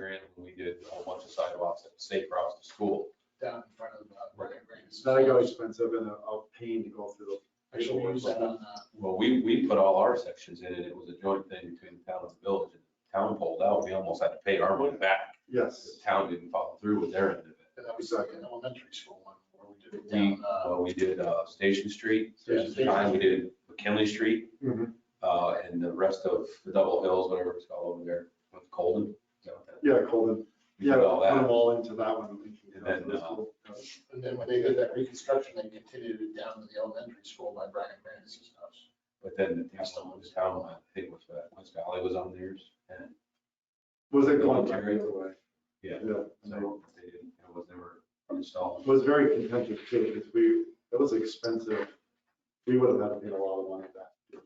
in when we did a whole bunch of sidewalks at State Route to school. down in front of uh, the Right. It's not go expensive and a a pain to go through the I should use that on uh, Well, we, we put all our sections in and it was a joint thing between the town and the village. And the Town pulled out, we almost had to pay our money back. Yes, The town didn't follow through with their end of it. the, that was like an elementary school one where we did it We, down, uh, well, we did uh, Station Street, Yeah, at the time we did McKinley Street, Mhm. uh, and the rest of the Double Hills, whatever it's called over there, with Colden. Is that what that- yeah, Colin, we yeah, did put all that. them all into that one. And then, uh, and then when they did that reconstruction, they continued it down to the elementary school by Brian Grant's house. But then the town, the town, I think was, uh, West Valley was on theirs and. Was it going back Military. the other way? Yeah. So So they didn't, it was never installed. It was very contentious too, because we, it was expensive. We would have had to pay a lot of money back.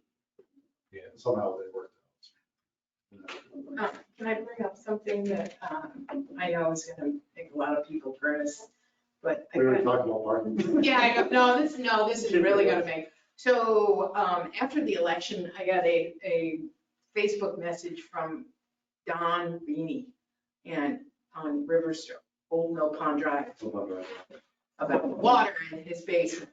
Yeah. Somehow they worked out. Uh, Can I bring up something that um, I know is going to make a lot of people furious, but I We were couldn't talking about parking. Yeah, I don't, no, this, no, this is really gonna make, so, um, after the election, I got a, a Facebook message from Don Beanie and on Riverstone, Old Mill Pond Drive, about water in his basement.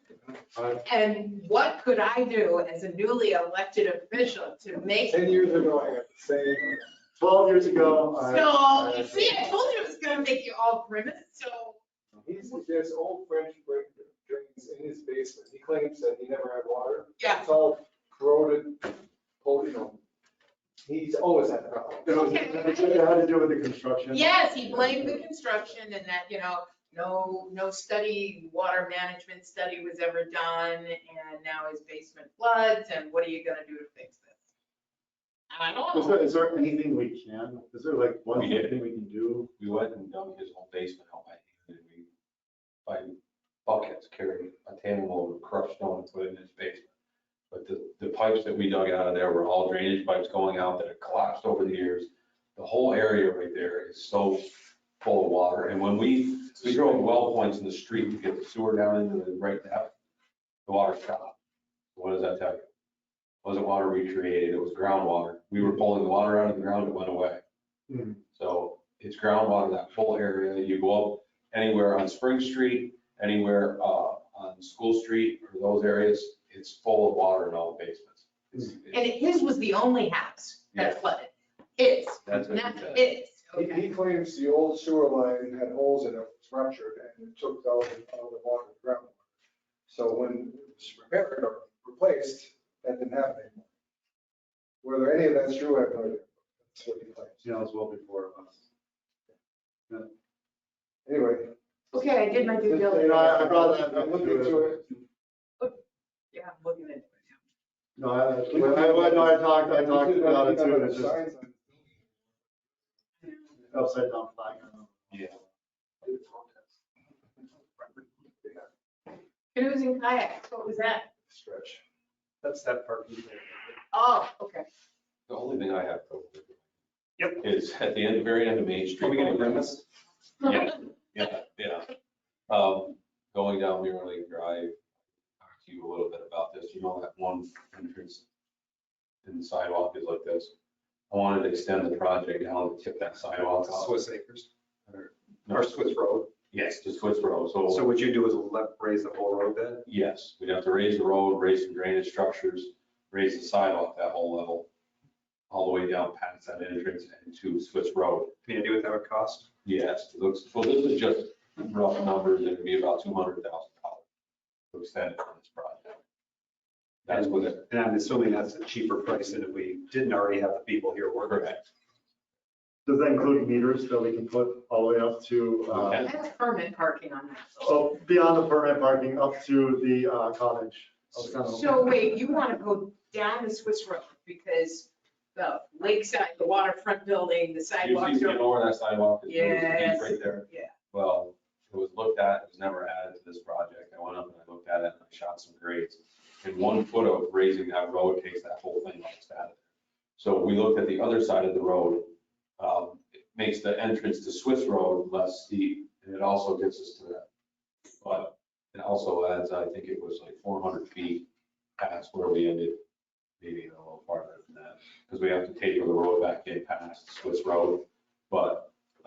Uh, And what could I do as a newly elected official to make? Ten years ago, I got the same. Twelve years ago, So, I. you see, I told you it was gonna make you all grimace, so He's, there's old French break drains in his basement. He claims that he never had water. Yeah. It's all corroded, pulled, you know. He's always had problems. It was- it had to do with the construction. Yes, he blamed the construction and that, you know, no, no study, water management study was ever done, and now his basement floods, and what are you gonna do to fix this? I Is don't know. there, is there anything we can, is there like one We did. thing we can do? We went and dumped his whole basement out by hand, and we, by buckets, carried a tandem load of crushed stone and put it in his basement. But the, the pipes that we dug out of there were all drainage pipes going out that had collapsed over the years. The whole area right there is so full of water, and when we, we drove well points in the street to get the sewer down into the right depth, the water stopped. What does that tell you? Wasn't water recreated, it was groundwater. We were pulling the water out of the ground, it went away. Mhm. So it's groundwater, that whole area. You go up anywhere on Spring Street, anywhere uh, on School Street or those areas, it's full of water in all the basements. It's- And his was the only house Yeah. that flooded. His, That's what not he said. his, He, okay. he claims the old sewer line had holes in it, was ruptured, and it took all the, all the water to ground. So when it was repaired or replaced, that didn't happen anymore. Whether any of that's true, I have no idea. That's what he claims. Yeah, it was well before us. Anyway. Okay, I did my due You know, I I diligence. brought that. I'm looking into it. Yeah, I'm looking at it. No, I, when I, when I talked, I talked about it too, and it's just Signs on upside down flag. Yeah. the protest Canoes and kayaks, what was that? Stretch. That's that parking area. Oh, okay. The only thing I have. Yep. Is at the end, very end of Main Street. Are we gonna grimace? Yeah, yeah, yeah. Um, going down Muir Lake Drive, talked to you a little bit about this, you know, that one entrance in the sidewalk is like this. I wanted to extend the project down to tip that sidewalk off. Swiss Acres, No, or Swiss Road. Yes, to Swiss Road, So what you do is left, raise the whole road bed? Yes, we'd have to raise the road, raise some drainage structures, raise the sidewalk that whole level, all the way down past that entrance and to Swiss Road. Any idea what that would cost? Yes, it looks, well, this is just rough numbers, it'd be about two hundred thousand dollars to extend on this project. That's what it, And I'm assuming that's a cheaper price than if we didn't already have the people here working. correct. Does that include meters that we can put all the way up to, uh, Okay. That's permit parking on that. so beyond the permit parking, up to the uh, cottage? of Snow? So wait, you want to go down the Swiss Road because the lakeside, the waterfront building, the Usually, sidewalks you are. know where that sidewalk is, it's Yes. right there. Yeah. Well, it was looked at, it was never added to this project. I went up and I looked at it and I shot some grades. And one foot of raising that road takes that whole thing off its status. So we looked at the other side of the road. Um, It makes the entrance to Swiss Road less steep and it also gets us to that. But it also adds, I think it was like four hundred feet past where we ended, maybe a little farther than that. Because we have to taper the road back in past Swiss Road. But